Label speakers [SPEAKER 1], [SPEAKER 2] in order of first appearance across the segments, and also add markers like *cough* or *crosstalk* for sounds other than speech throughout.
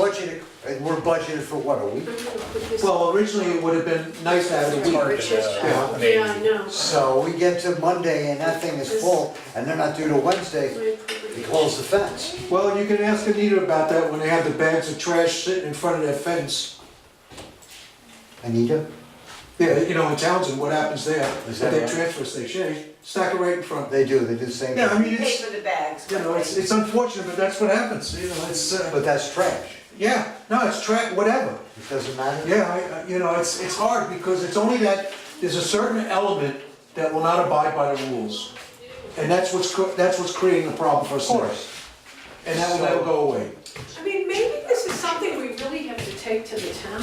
[SPEAKER 1] budgeted, and we're budgeted for what, a week?
[SPEAKER 2] Well, originally it would have been nice to have it a week,
[SPEAKER 3] Which is,
[SPEAKER 4] uh,
[SPEAKER 2] Yeah.
[SPEAKER 3] yeah, I know.
[SPEAKER 1] So we get to Monday and that thing is full, and they're not due till Wednesday, we close the fence.
[SPEAKER 2] Well, you can ask Anita about that when they have the bags of trash sitting in front of that fence.
[SPEAKER 1] Anita,
[SPEAKER 2] Yeah, you know, in Townsend, what happens there, at
[SPEAKER 1] Is that
[SPEAKER 2] that
[SPEAKER 1] right?
[SPEAKER 2] transfer station, yeah, you stack it right in front.
[SPEAKER 1] they do, they do the same
[SPEAKER 2] Yeah, I
[SPEAKER 1] thing,
[SPEAKER 2] mean,
[SPEAKER 5] Pay
[SPEAKER 2] it's,
[SPEAKER 5] for the bags.
[SPEAKER 2] you know, it's, it's unfortunate, but that's what happens, you know, it's, uh,
[SPEAKER 1] but that's trash,
[SPEAKER 2] yeah, no, it's track, whatever.
[SPEAKER 1] it doesn't matter.
[SPEAKER 2] Yeah, I- I- you know, it's, it's hard because it's only that, there's a certain element that will not abide by the rules. And that's what's, cr- that's what's creating the problem for us.
[SPEAKER 1] Of
[SPEAKER 2] now.
[SPEAKER 1] course.
[SPEAKER 2] And that will never go away.
[SPEAKER 3] I mean, maybe this is something we really have to take to the town,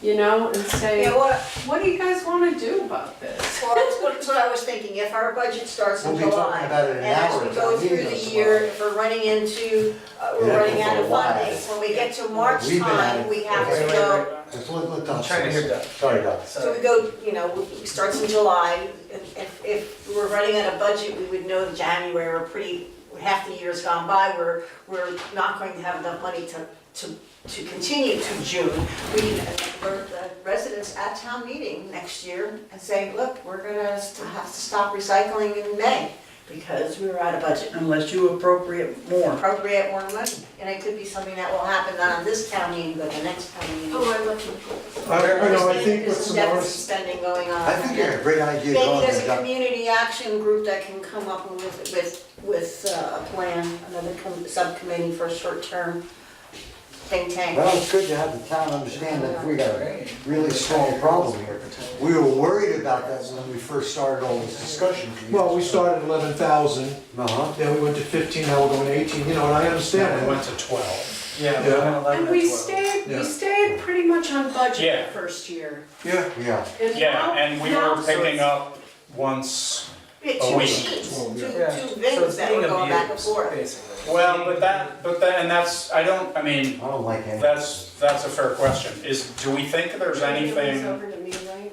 [SPEAKER 3] you know, and say,
[SPEAKER 5] Yeah, what,
[SPEAKER 3] what do you guys wanna do about this?
[SPEAKER 5] well, that's what, *laughs* that's what I was thinking, if our budget starts in
[SPEAKER 1] We'll be talking
[SPEAKER 5] July,
[SPEAKER 1] about it in
[SPEAKER 5] and
[SPEAKER 1] an
[SPEAKER 5] as
[SPEAKER 1] hour
[SPEAKER 5] we
[SPEAKER 1] at
[SPEAKER 5] go
[SPEAKER 1] town
[SPEAKER 5] through
[SPEAKER 1] meeting
[SPEAKER 5] the
[SPEAKER 1] tomorrow.
[SPEAKER 5] year, if we're running into, uh,
[SPEAKER 1] Yeah,
[SPEAKER 5] we're running
[SPEAKER 1] for
[SPEAKER 5] out
[SPEAKER 1] a
[SPEAKER 5] of
[SPEAKER 1] while.
[SPEAKER 5] funding, when we get to March
[SPEAKER 1] We've been at
[SPEAKER 5] time,
[SPEAKER 1] it.
[SPEAKER 5] we have to
[SPEAKER 1] Wait,
[SPEAKER 5] go.
[SPEAKER 1] wait, wait. Let's let- let Doc
[SPEAKER 4] I'm trying to
[SPEAKER 1] finish.
[SPEAKER 4] hear Doc.
[SPEAKER 1] Sorry, Doc.
[SPEAKER 5] So we
[SPEAKER 4] Sorry.
[SPEAKER 5] go, you know, it starts in July, if, if- if we we're running on a budget, we would know in January, we're pretty, half the year's gone by, we're, we're not going to have enough money to, to, to continue to June. We, we're the residents at town meeting next year and saying, look, we're gonna st- have to stop recycling in May because we were out of budget.
[SPEAKER 6] unless you appropriate more.
[SPEAKER 5] Appropriate more money, and it could be something that will happen not on this town meeting, but the next town meeting.
[SPEAKER 3] Oh, I love my
[SPEAKER 2] I, I know, I think
[SPEAKER 5] There's
[SPEAKER 2] what's the
[SPEAKER 5] deficit
[SPEAKER 2] worst,
[SPEAKER 5] spending going on.
[SPEAKER 1] I think you had a great idea
[SPEAKER 5] Maybe
[SPEAKER 1] going
[SPEAKER 5] there's
[SPEAKER 1] there,
[SPEAKER 5] a
[SPEAKER 1] Doc.
[SPEAKER 5] community action group that can come up with, with, with uh, a plan, another com- subcommittee for a short-term think tank.
[SPEAKER 1] Well, it's good to have the town understand that we got a really strong problem here. We were worried about that when we first started all this discussion.
[SPEAKER 2] well, we started at eleven thousand,
[SPEAKER 1] Uh-huh.
[SPEAKER 2] then we went to fifteen, now we're going to eighteen, you know, and I understand
[SPEAKER 4] Then we
[SPEAKER 2] that.
[SPEAKER 4] went to twelve. Yeah,
[SPEAKER 2] we went
[SPEAKER 3] And we stayed,
[SPEAKER 2] Yeah.
[SPEAKER 3] we stayed pretty much on budget
[SPEAKER 4] Yeah.
[SPEAKER 3] the first year.
[SPEAKER 2] Yeah.
[SPEAKER 1] Yeah,
[SPEAKER 3] And
[SPEAKER 4] Yeah,
[SPEAKER 3] now-
[SPEAKER 4] and we
[SPEAKER 3] now-
[SPEAKER 4] were picking up once,
[SPEAKER 5] We had
[SPEAKER 4] a
[SPEAKER 6] Oh,
[SPEAKER 5] Two
[SPEAKER 4] week.
[SPEAKER 5] machines, two, two
[SPEAKER 6] So it's
[SPEAKER 5] bins that were
[SPEAKER 6] being
[SPEAKER 5] going back and
[SPEAKER 6] abused,
[SPEAKER 5] forth.
[SPEAKER 6] basically.
[SPEAKER 4] well, but that, but that, and that's, I don't, I mean,
[SPEAKER 1] I don't like any.
[SPEAKER 4] that's, that's a fair question, is, do we think there's
[SPEAKER 3] It's
[SPEAKER 4] anything?
[SPEAKER 3] over to me, right?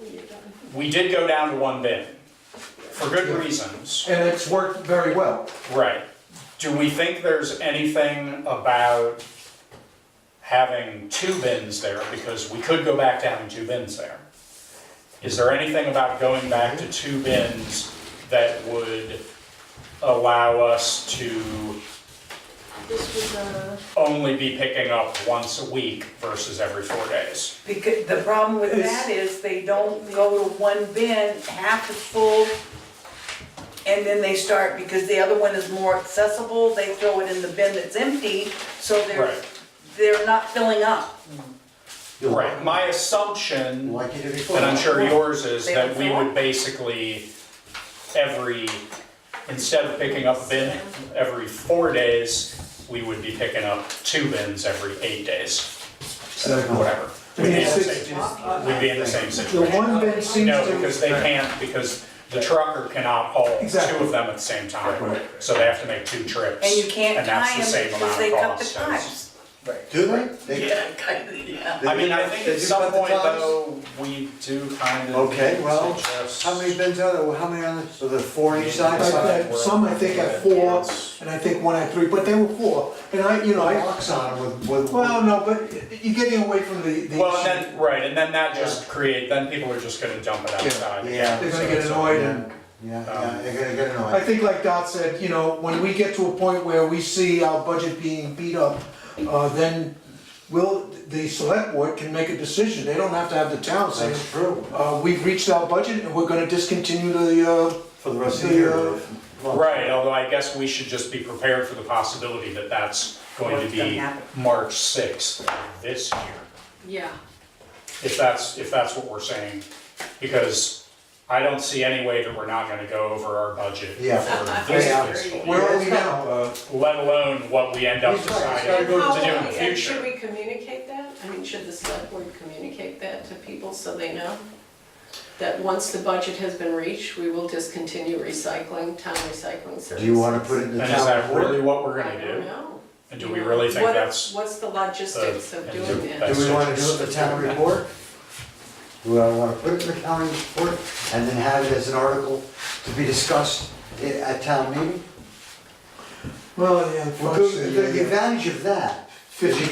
[SPEAKER 3] You're done.
[SPEAKER 4] We did go down to one bin, for good reasons,
[SPEAKER 2] And it's worked very well.
[SPEAKER 4] right. Do we think there's anything about having two bins there, because we could go back to having two bins there? Is there anything about going back to two bins that would allow us to
[SPEAKER 3] This was, uh,
[SPEAKER 4] only be picking up once a week versus every four days.
[SPEAKER 6] Because the problem with that is they don't go to one bin, half is full, and then they start, because the other one is more accessible, they throw it in the bin that's empty, so they're,
[SPEAKER 4] Right.
[SPEAKER 6] they're not filling up.
[SPEAKER 1] You're
[SPEAKER 4] Right, my assumption,
[SPEAKER 1] Like you did before.
[SPEAKER 4] and I'm sure yours is,
[SPEAKER 6] They
[SPEAKER 4] that
[SPEAKER 6] don't
[SPEAKER 4] we
[SPEAKER 6] fill
[SPEAKER 4] would
[SPEAKER 6] up.
[SPEAKER 4] basically, every, instead of picking up a bin every four days, we would be picking up two bins every eight days, whatever.
[SPEAKER 2] I mean,
[SPEAKER 4] We'd be in
[SPEAKER 2] it's,
[SPEAKER 4] the
[SPEAKER 2] it's,
[SPEAKER 4] same- we'd be in the same
[SPEAKER 2] the
[SPEAKER 4] situation.
[SPEAKER 2] one bin seems
[SPEAKER 4] No,
[SPEAKER 2] to.
[SPEAKER 4] because they can't, because the trucker cannot haul two
[SPEAKER 2] Exactly.
[SPEAKER 4] of them at the same time.
[SPEAKER 2] Right.
[SPEAKER 4] So they have to make two trips.
[SPEAKER 6] And you can't
[SPEAKER 4] that's
[SPEAKER 6] tie
[SPEAKER 4] the
[SPEAKER 6] them
[SPEAKER 4] same amount
[SPEAKER 6] because
[SPEAKER 4] of
[SPEAKER 6] they cut the
[SPEAKER 4] cost.
[SPEAKER 6] ties.
[SPEAKER 1] Do they? They-
[SPEAKER 6] Yeah, kind of, yeah.
[SPEAKER 4] I mean, I think
[SPEAKER 1] They
[SPEAKER 4] at
[SPEAKER 1] do
[SPEAKER 4] some
[SPEAKER 1] cut the
[SPEAKER 4] point
[SPEAKER 1] ties?
[SPEAKER 4] though, we do kind of.
[SPEAKER 1] Okay, well,
[SPEAKER 4] suggest-
[SPEAKER 1] How many bins are there, Well, how many on the, so there are four on each side?
[SPEAKER 2] I've
[SPEAKER 4] Like
[SPEAKER 1] So
[SPEAKER 4] that.
[SPEAKER 2] had Some I think had four, and I think one had three, but they were four, and I, you know,
[SPEAKER 1] I
[SPEAKER 2] I,
[SPEAKER 1] Locks on them with, with.
[SPEAKER 2] well, no, but you're getting away from the, the.
[SPEAKER 4] Well, and then, right, and then that just create, then people are just gonna dump it outside.
[SPEAKER 1] Yeah.
[SPEAKER 4] again,
[SPEAKER 2] They're
[SPEAKER 4] so
[SPEAKER 2] gonna get
[SPEAKER 4] it's a-
[SPEAKER 2] annoyed and.
[SPEAKER 1] Yeah, yeah, yeah, they're gonna get
[SPEAKER 2] I
[SPEAKER 1] annoyed.
[SPEAKER 2] think like Dot said, you know, when we get to a point where we see our budget being beat up, uh, then will, the select board can make a decision, they don't have to have the town say,
[SPEAKER 1] That's true,
[SPEAKER 2] uh, we've reached our budget and we're gonna discontinue the, uh,
[SPEAKER 1] for the rest of the year.
[SPEAKER 2] The, uh,
[SPEAKER 1] well,
[SPEAKER 4] Right, although I guess we should just be prepared for the possibility that that's going to
[SPEAKER 6] What's gonna
[SPEAKER 4] be
[SPEAKER 6] happen.
[SPEAKER 4] March sixth this year.
[SPEAKER 3] yeah.
[SPEAKER 4] if that's, if that's what we're saying. Because I don't see any way that we're not gonna go over our budget for
[SPEAKER 1] Yeah. uh, Yeah.
[SPEAKER 4] this fiscal year,
[SPEAKER 2] where are we now? Uh,
[SPEAKER 4] let alone what we end up
[SPEAKER 1] He's right, it's gotta
[SPEAKER 4] deciding
[SPEAKER 1] go to
[SPEAKER 3] How
[SPEAKER 4] to do in
[SPEAKER 3] will
[SPEAKER 4] the
[SPEAKER 3] we- and Should
[SPEAKER 4] future.
[SPEAKER 3] we communicate that? I mean, should the select board communicate that to people so they know? That once the budget has been reached, we will discontinue recycling, town recycling services?
[SPEAKER 1] Do you wanna put it in the
[SPEAKER 4] And is
[SPEAKER 1] town
[SPEAKER 4] that
[SPEAKER 1] report?
[SPEAKER 4] really what we're
[SPEAKER 3] I
[SPEAKER 4] gonna
[SPEAKER 3] don't
[SPEAKER 4] do?
[SPEAKER 3] know.
[SPEAKER 4] And do we really think
[SPEAKER 3] What-
[SPEAKER 4] that's,
[SPEAKER 3] What's the logistics of
[SPEAKER 4] the-
[SPEAKER 3] doing that?
[SPEAKER 4] that's-
[SPEAKER 1] Do we wanna do it in the town report? Do I wanna put it in the county report and then have it as an article to be discussed i- at town meeting?
[SPEAKER 2] Well, yeah,
[SPEAKER 1] Well, the-
[SPEAKER 2] unfortunately,
[SPEAKER 1] The
[SPEAKER 2] yeah.
[SPEAKER 1] the advantage of that is you